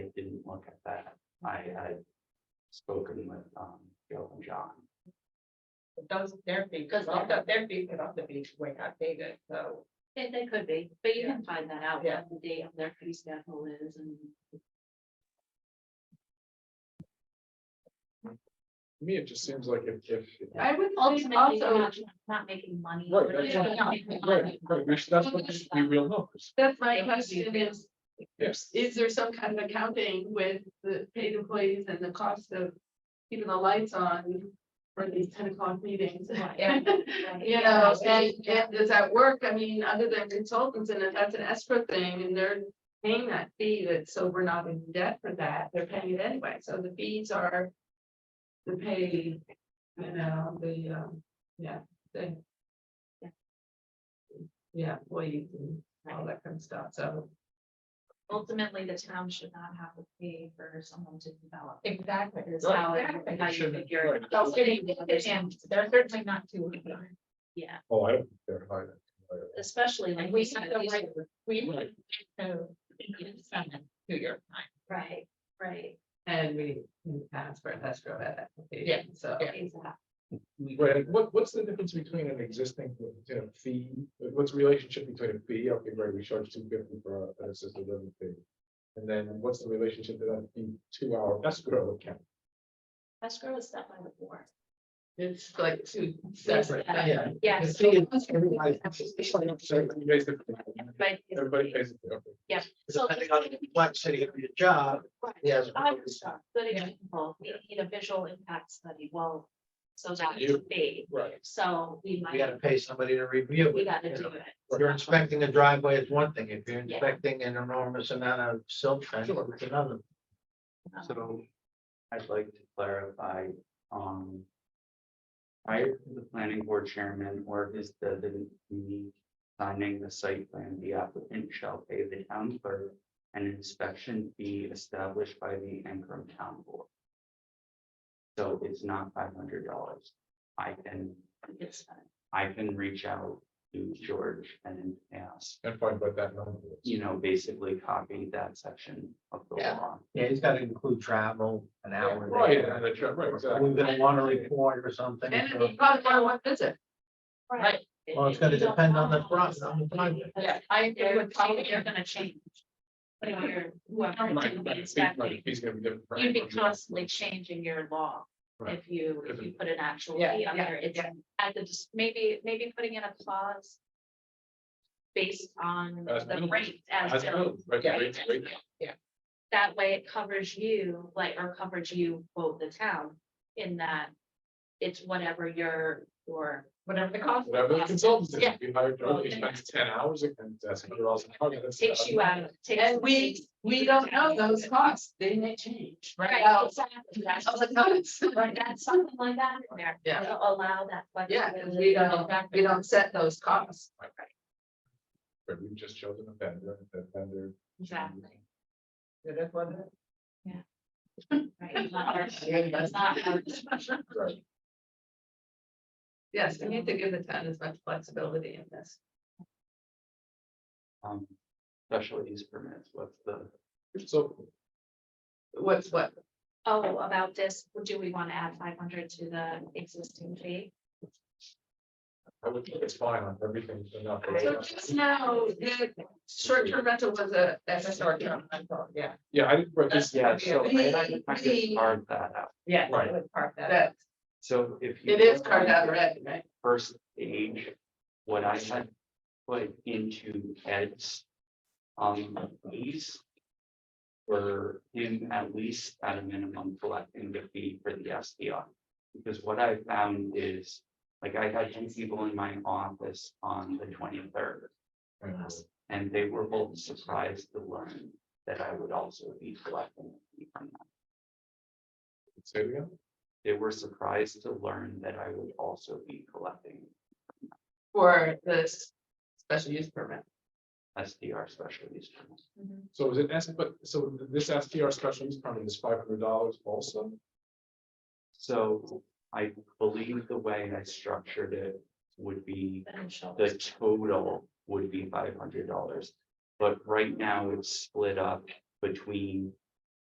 had spoken with, um, Joe and John. Those therapy, because all the therapy put on the beach were not dated, so. They, they could be, but you can find that out, Yeah. what the date of their fee schedule is and. To me, it just seems like if, if. I would think Ultimately, you're also, not, not making money. Right, but that's you're what- not making Right, money. right, we should- that's what we should be real numbers. that's my It would be question real. is, Yes. is there some kind of accounting with the paid employees and the cost of keeping the lights on for these ten o'clock meetings? Yeah. You know, and, and does that work? I mean, other than consultants, and if that's an escrow thing, and they're paying that fee, that, so we're not in debt for that, they're paying it anyway, so the fees are the pay, you know, the, um, yeah, the Yeah. yeah, employees and all that kind of stuff, so. Ultimately, the town should not have to pay for someone to develop. Exactly. Is how, it- Exactly. how you Shouldn't, figure it right. So out. it- it- and they're certainly not too. Yeah, Oh, I don't think they're high. especially like. And we you said, have to these wait, we have Right. to do your time. Right, right, And we can ask for an escrow at that Yeah, application, so. yeah. exactly. Right, what, what's the difference between an existing, you know, fee, what's the relationship between a fee, okay, right, we charge two fifty for a- an assisted living fee? And then what's the relationship to that fee to our escrow account? Escrow is set by the board. It's like two separate. Yeah. things. Yes. Everybody pays it. Everybody is- Everybody pays it, okay. Yeah. So- depending on the complexity of your job, Right. yes. I was shocked. Good Yeah. example, we need a visual impact study, well, so that You- would be, Right, so we you might, gotta pay somebody to review it. we gotta you do know. it. If You're inspecting a driveway is one thing, if you're Yeah. inspecting an enormous amount of silt fence, Sure. it's another. So I'd like to clarify, um. Prior to the planning board chairman or his designee signing the site plan, the applicant shall pay the town clerk. An inspection fee established by the Ancrum Town Board. So it's not five hundred dollars. I can, Um, It's fine. I can reach out to George and ask, and find what that number is. you know, basically copy that section of the Yeah. law. Yeah, he's gotta include travel, an hour. Right, there. and the, tra- right, exactly. We're gonna want a report or something. And so- you probably want one visit. Right. Well, it's gonna You don't depend on the know. front, on the project. Yeah, I agree They're, with Paul. they're gonna change. But if you're, Right, whoever right, did right, the he's right, inspecting, he's gonna be different. for you'd be everybody. constantly changing your law. Right. If you, if you put an actual fee Yeah, on yeah, there, it's yeah. at the, dis- maybe, maybe putting in a clause. Based on As the billed. rate as That's billed. true, right, Yeah. right, right. that way it covers you, like, or covers you, quote, the town, in that it's whatever your, your, Whatever the cost. Whatever the consultant is, Yeah. if you hire, Charlie, he spends ten hours, and that's hundred dollars an hour. that's- takes you out, of- takes. And we, we don't know those costs, they may change. Right, Now, exactly, that's, Of the notice. right, that's something like that in there. Yeah. to Allow that. Yeah, 'cause flexibility. we don't, we don't set those costs. But we've just chosen a vendor, and that vendor. Exactly, That's what it right, it's not our- it's not um, our- Right. Yes, we need to give the town as much flexibility in this. Um, special use permits, what's the, So, What's what? Oh, about this, do we want to add five hundred to the existing fee? I would think it's fine on everything, but not. for- So just now, the short-term rental was a, that's a is. Short short-term. term, I thought, yeah. Yeah, I didn't, right, this, yeah, so I We- I- I we- just carved that out. Yeah. Right. I would park that. That, So if. you it is look carved at out already, right? First page, what I had put into Ed's. Um, fees. Were him at least at a minimum collecting the fee for the SDR. Because what I found is, like, I had two people in my office on the twenty-third. And they were both surprised to learn that I would also be collecting a fee from them. Say it again, They were surprised to learn that I would also be collecting For this special use permit. SDR special use permits. so is it S, but, so this STR special use permit is five hundred dollars also? So I believe the way I structured it would be, Potential. the total would be five hundred dollars. But right now it's split up between